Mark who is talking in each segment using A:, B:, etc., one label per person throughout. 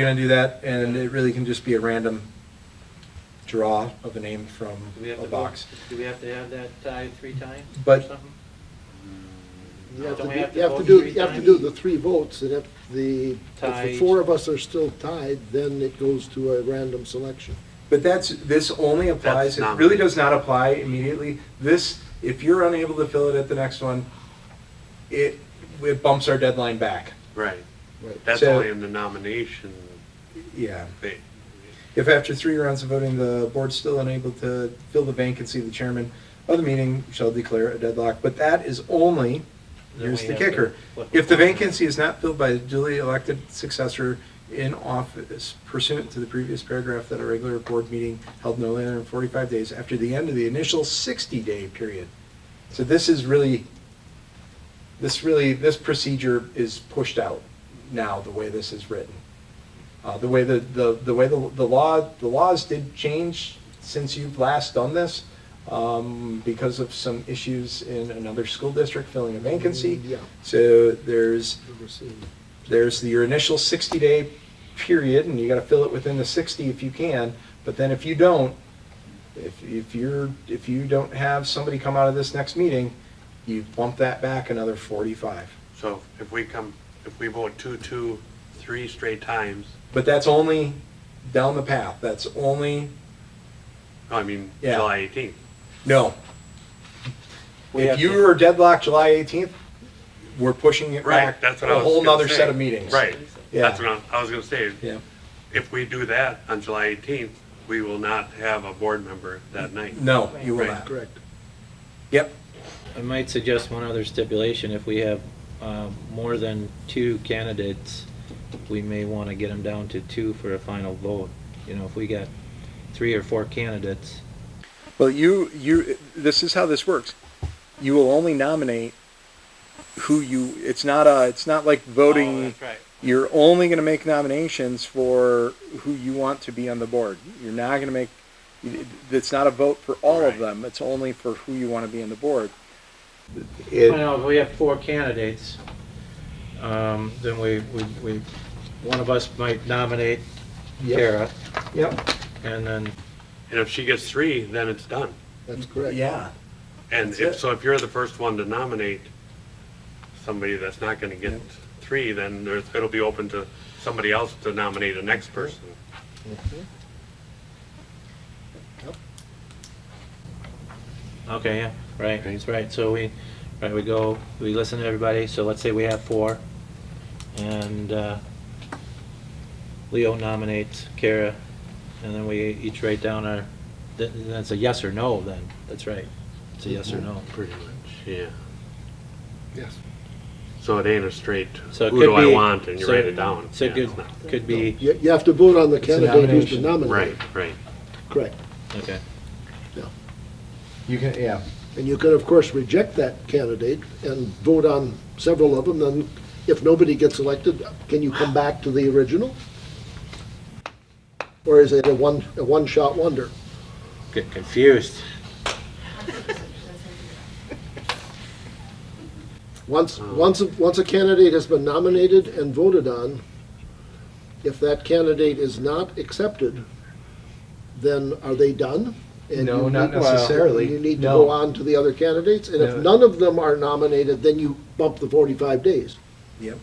A: You're gonna do that, and it really can just be a random draw of a name from
B: Do we have
A: a
B: to
A: box.
B: vote- Do we have to have that tied three times or
A: But-
B: something?
C: You have to,
B: Don't we
C: do-
B: have to
C: you have to
B: vote
C: do,
B: three
C: you have to
B: times?
C: do the three votes, and if the, if
B: Tied.
C: the four of us are still tied, then it goes to a random selection.
A: But that's, this only applies,
D: That's
A: it
D: not-
A: really does not apply immediately. This, if you're unable to fill it at the next one, it, it bumps our deadline back.
D: Right,
C: Right.
D: that's
A: So-
D: only in the nomination,
A: Yeah.
D: but
A: If after three rounds of voting, the board's still unable to fill the vacancy, the chairman of the meeting shall declare a deadlock. But that is only,
B: Then
A: here's
B: we
A: the
B: have to
A: kicker.
B: flip
A: If the
B: the-
A: vacancy is not filled by a duly elected successor in office pursuant to the previous paragraph that a regular board meeting held no later than 45 days after the end of the initial 60-day period. So this is really, this really, this procedure is pushed out now, the way this is written. Uh, The way the, the the way the the law, the laws did change since you've last done this um, because of some issues in another school district filling a vacancy.
C: Yeah.
A: So there's,
C: Number C.
A: there's your initial 60-day period, and you got to fill it within the 60 if you can, but then if you don't, if, if you're, if you don't have somebody come out of this next meeting, you bump that back another 45.
D: so if we come, if we vote two, two, three straight times,
A: But that's only down the path, that's only,
D: I mean,
A: Yeah.
D: July eighteenth.
A: no.
B: We
A: If
B: have
A: you
B: to-
A: are deadlocked July 18th, we're pushing it
D: Right,
A: back
D: that's what
A: a
D: I was
A: whole
D: gonna
A: nother
D: say.
A: set of meetings.
D: Right,
A: Yeah.
D: that's what I, I was gonna say,
A: Yeah,
D: if we do that on July eighteenth, we will not have a board member that night.
A: no, you will
D: Right.
A: not.
C: Correct.
A: Yep,
E: I might suggest one other stipulation, if we have um, more than two candidates, we may want to get them down to two for a final vote. You know, if we got three or four candidates,
A: Well, you, you, this is how this works. You will only nominate who you, it's not a, it's not like
B: Oh,
A: voting.
B: that's right.
A: You're only gonna make nominations for who you want to be on the board. You're not gonna make, it's not a vote for all of
D: Right.
A: them. It's only for who you wanna be on the board.
E: you know, if we have four candidates, um, then we, we, we- one of us might nominate Kara,
A: Yep,
E: and then,
D: And if she gets three, then it's done.
C: That's correct.
A: yeah.
D: And
A: That's
D: if,
A: it.
D: so if you're the first one to nominate somebody that's not gonna get three, then there's, it'll be open to somebody else to nominate the next person.
E: okay, yeah, right, that's right, so we, right, we go, we listen to everybody, so let's say we have four, and uh, Leo nominates Kara, and then we each write down our, th- that's a yes or no then, that's right, it's a yes or no.
D: Pretty much, yeah.
C: Yes.
D: So it ain't a straight,
E: So it
D: who
E: could
D: do I
E: be-
D: want, and you
E: so-
D: write it down.
E: So it
D: Yeah.
E: could, could be,
C: You, you have to vote on the
A: a
C: candidate who's the
A: nomination.
C: nominee.
D: Right, right.
C: Correct,
E: okay,
C: yeah.
A: You can, yeah.
C: And you can, of course, reject that candidate and vote on several of them, then if nobody gets elected, can you come back to the original? Or is it a one, a one-shot wonder?
E: get confused.
C: Once,
A: Oh.
C: once, once a candidate has been nominated and voted on, if that candidate is not accepted, then are they done? And
A: No,
C: you
A: not
C: need-
A: necessarily.
C: You need to
A: No.
C: go on to the other candidates, and if
A: No.
C: none of them are nominated, then you bump the forty-five days.
A: Yep.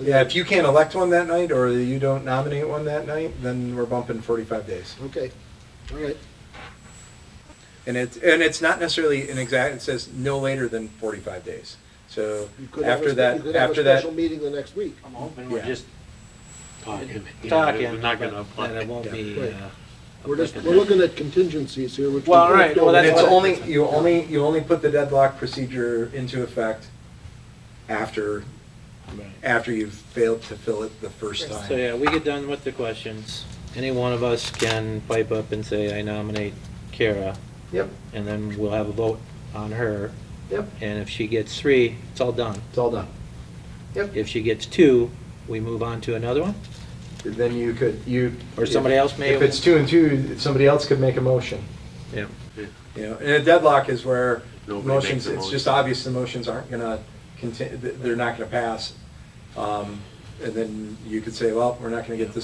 A: Yeah, if you can't elect one that night, or you don't nominate one that night, then we're bumping forty-five days.
C: Okay, all right,
A: And it's, and it's not necessarily an exact, it says no later than forty-five days. So
C: you could have a,
A: after
C: spe- you
A: that,
C: could have a
A: after that,
C: special meeting the next week.
B: I'm hoping we're
A: Yeah.
B: just
D: Talking.
E: Talking,
D: We're
E: but
D: not gonna
E: then it
D: apply.
E: won't be,
C: Right.
E: uh,
C: We're just, we're looking at contingencies here, which. we
B: Well,
C: don't
B: right,
C: know
B: well,
A: and
B: that's
A: it's
B: what-
A: only, you only, you only put the deadlock procedure into effect after,
E: uh,
A: after you've failed to fill it the first
E: So,
A: time.
E: yeah, we get done with the questions. Any one of us can pipe up and say, I nominate Kara,
A: Yep,
E: and then we'll have a vote on her.
A: yep,
E: And if she gets three, it's all done.
A: it's all done.
E: If she gets two, we move on to another one?
A: Then you could, you.
E: Or somebody else may-
A: If it's two and two, somebody else could make a motion.
E: Yeah.
A: You know, and a deadlock is where
D: Nobody
A: motions,
D: makes a
A: it's
D: motion.
A: just obvious the motions aren't gonna conti- th they're not gonna pass. Um, and then you could say, well, we're not gonna get this